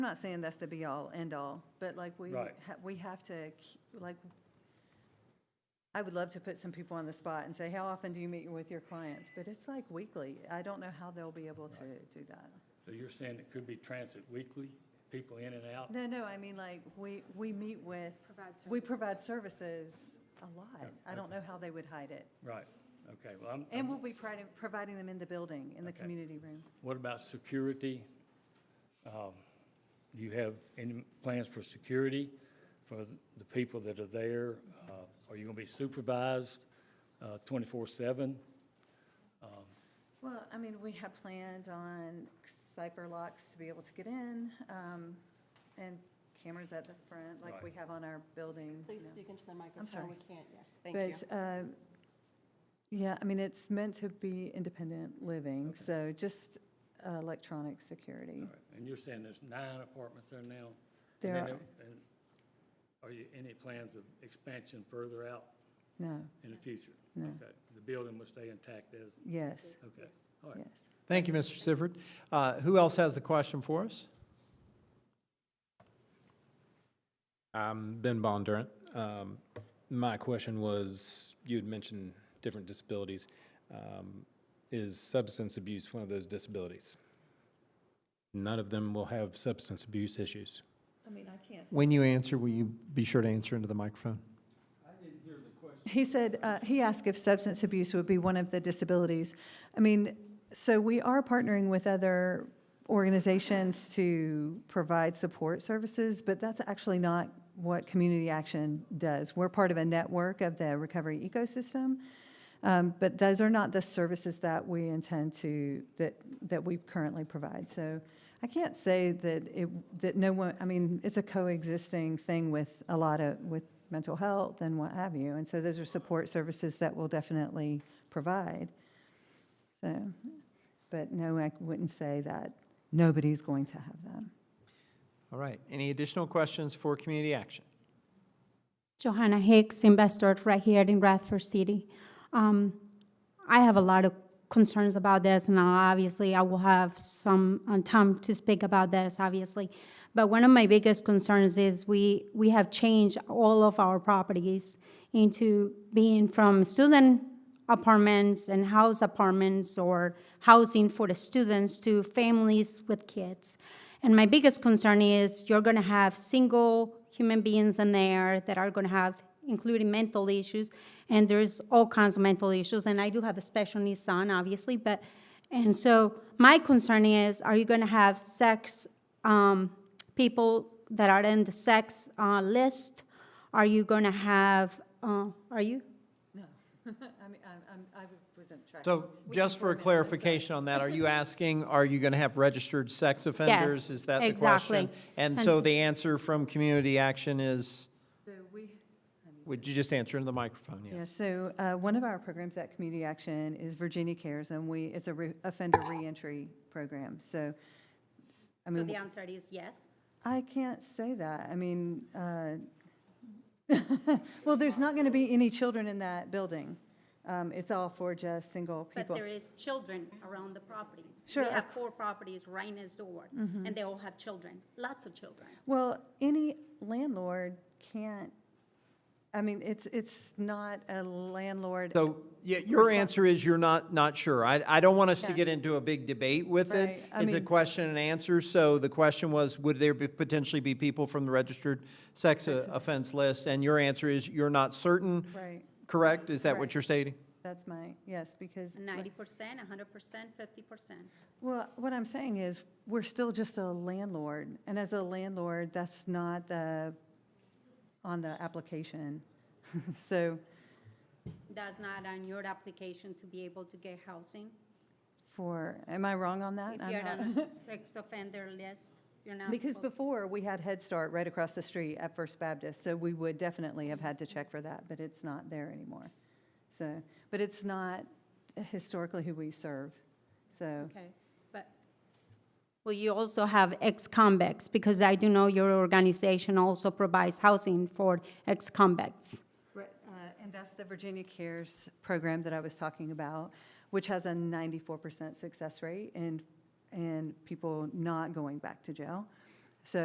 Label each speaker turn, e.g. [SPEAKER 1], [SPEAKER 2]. [SPEAKER 1] I'm not saying that's the be-all, end-all, but like we,
[SPEAKER 2] Right.
[SPEAKER 1] ha- we have to, k- like, I would love to put some people on the spot and say, how often do you meet with your clients? But it's like weekly. I don't know how they'll be able to do that.
[SPEAKER 2] So you're saying it could be transit weekly, people in and out?
[SPEAKER 1] No, no, I mean, like, we, we meet with,
[SPEAKER 3] Provide services.
[SPEAKER 1] we provide services a lot. I don't
[SPEAKER 2] okay.
[SPEAKER 1] know how they would hide it.
[SPEAKER 2] Right, okay, well, I'm-
[SPEAKER 1] And
[SPEAKER 2] I'm,
[SPEAKER 1] we'll be providing, providing them in the building, in the
[SPEAKER 2] Okay.
[SPEAKER 1] community room.
[SPEAKER 2] what about security? Um, Do you have any plans for security for the people that are there? Uh, Are you going to be supervised uh, twenty-four seven?
[SPEAKER 1] Well, I mean, we have planned on cipher locks to be able to get in, um, and cameras at the front, like
[SPEAKER 2] Right.
[SPEAKER 1] we have on our building.
[SPEAKER 3] Please
[SPEAKER 1] you know.
[SPEAKER 3] speak into the microphone.
[SPEAKER 1] sorry.
[SPEAKER 3] We can't, yes, thank you.
[SPEAKER 1] But, uh, yeah, I mean, it's meant to be independent living, so just uh, electronic security.
[SPEAKER 2] And you're saying there's nine apartments there now? And
[SPEAKER 1] There
[SPEAKER 2] then
[SPEAKER 1] are,
[SPEAKER 2] it- and Are you, any plans of expansion further out
[SPEAKER 1] no,
[SPEAKER 2] in the future?
[SPEAKER 1] No.
[SPEAKER 2] Okay, the building will stay intact as,
[SPEAKER 1] yes,
[SPEAKER 2] okay, all right.
[SPEAKER 1] yes.
[SPEAKER 4] Thank you, Mr. Sifford. Uh, Who else has a question for us?
[SPEAKER 5] I'm Ben Bondurant. Um, my question was, you had mentioned different disabilities. Um, is substance abuse one of those disabilities? None of them will have substance abuse issues.
[SPEAKER 1] I mean, I can't.
[SPEAKER 4] When you answer, will you be sure to answer into the microphone?
[SPEAKER 1] He said, uh, he asked if substance abuse would be one of the disabilities. I mean, so we are partnering with other organizations to provide support services, but that's actually not what Community Action does. We're part of a network of the recovery ecosystem, um, but those are not the services that we intend to, that, that we currently provide. So I can't say that it, that no one, I mean, it's a coexisting thing with a lot of, with mental health and what have you. And so those are support services that we'll definitely provide. So, but no, I wouldn't say that nobody's going to have them.
[SPEAKER 4] All right. Any additional questions for community action?
[SPEAKER 6] Johanna Hicks, investor right here in Radford City. Um, I have a lot of concerns about this, and obviously I will have some uh, time to speak about this, obviously. But one of my biggest concerns is we, we have changed all of our properties into being from student apartments and house apartments or housing for the students to families with kids. And my biggest concern is you're going to have single human beings in there that are going to have, including mental issues, and there's all kinds of mental issues. And I do have a special needs son, obviously, but and so my concern is, are you going to have sex um, people that are in the sex uh, list? Are you going to have? Uh, are you?
[SPEAKER 1] No, I mean, I wasn't tracking.
[SPEAKER 4] So just for clarification on that, are you asking, are you going to have registered sex offenders? Is that the question?
[SPEAKER 6] exactly.
[SPEAKER 4] And
[SPEAKER 6] And
[SPEAKER 4] so
[SPEAKER 6] s-
[SPEAKER 4] the answer from community action is,
[SPEAKER 1] So we,
[SPEAKER 4] would you just answer into the microphone?
[SPEAKER 1] Yeah, so uh, one of our programs at Community Action is Virginia Cares, and we, it's a re- offender reentry program, so, I
[SPEAKER 6] So
[SPEAKER 1] mean,
[SPEAKER 6] the answer is yes.
[SPEAKER 1] I can't say that. I mean, uh, well, there's not going to be any children in that building. Um, It's all for just single
[SPEAKER 6] But
[SPEAKER 1] people.
[SPEAKER 6] there is children around the properties.
[SPEAKER 1] Sure,
[SPEAKER 6] We
[SPEAKER 1] of Mm-hmm.
[SPEAKER 6] have four properties right next door, and they all have children, lots of children.
[SPEAKER 1] Well, any landlord can't, I mean, it's, it's not a landlord.
[SPEAKER 4] So yeah, your answer is you're not, not sure. I, I don't want us to
[SPEAKER 1] Yeah.
[SPEAKER 4] get into a big debate with it.
[SPEAKER 1] Right, I
[SPEAKER 4] It's a
[SPEAKER 1] mean-
[SPEAKER 4] question and answer. So the question was, would there be- potentially be people from the registered sex uh, offense list? And your answer is you're not certain,
[SPEAKER 1] Right,
[SPEAKER 4] correct? Is that
[SPEAKER 1] Right.
[SPEAKER 4] what you're stating?
[SPEAKER 1] that's my, yes, because.
[SPEAKER 6] Ninety percent, hundred percent, fifty percent.
[SPEAKER 1] Well, what I'm saying is, we're still just a landlord, and as a landlord, that's not the, on the application. So
[SPEAKER 6] That's not on your application to be able to get housing.
[SPEAKER 1] for, am I wrong on that?
[SPEAKER 6] If
[SPEAKER 1] I'm
[SPEAKER 6] you're
[SPEAKER 1] not-
[SPEAKER 6] on a sex offender list, you're not
[SPEAKER 1] Because
[SPEAKER 6] supposed-
[SPEAKER 1] before, we had Head Start right across the street at First Baptist, so we would definitely have had to check for that, but it's not there anymore. So, but it's not historically who we serve, so.
[SPEAKER 6] Okay, but, well, you also have ex-convicts, because I do know your organization also provides housing for ex-convicts.
[SPEAKER 1] Right, uh, And that's the Virginia Cares program that I was talking about, which has a 94% success rate and, and people not going back to jail.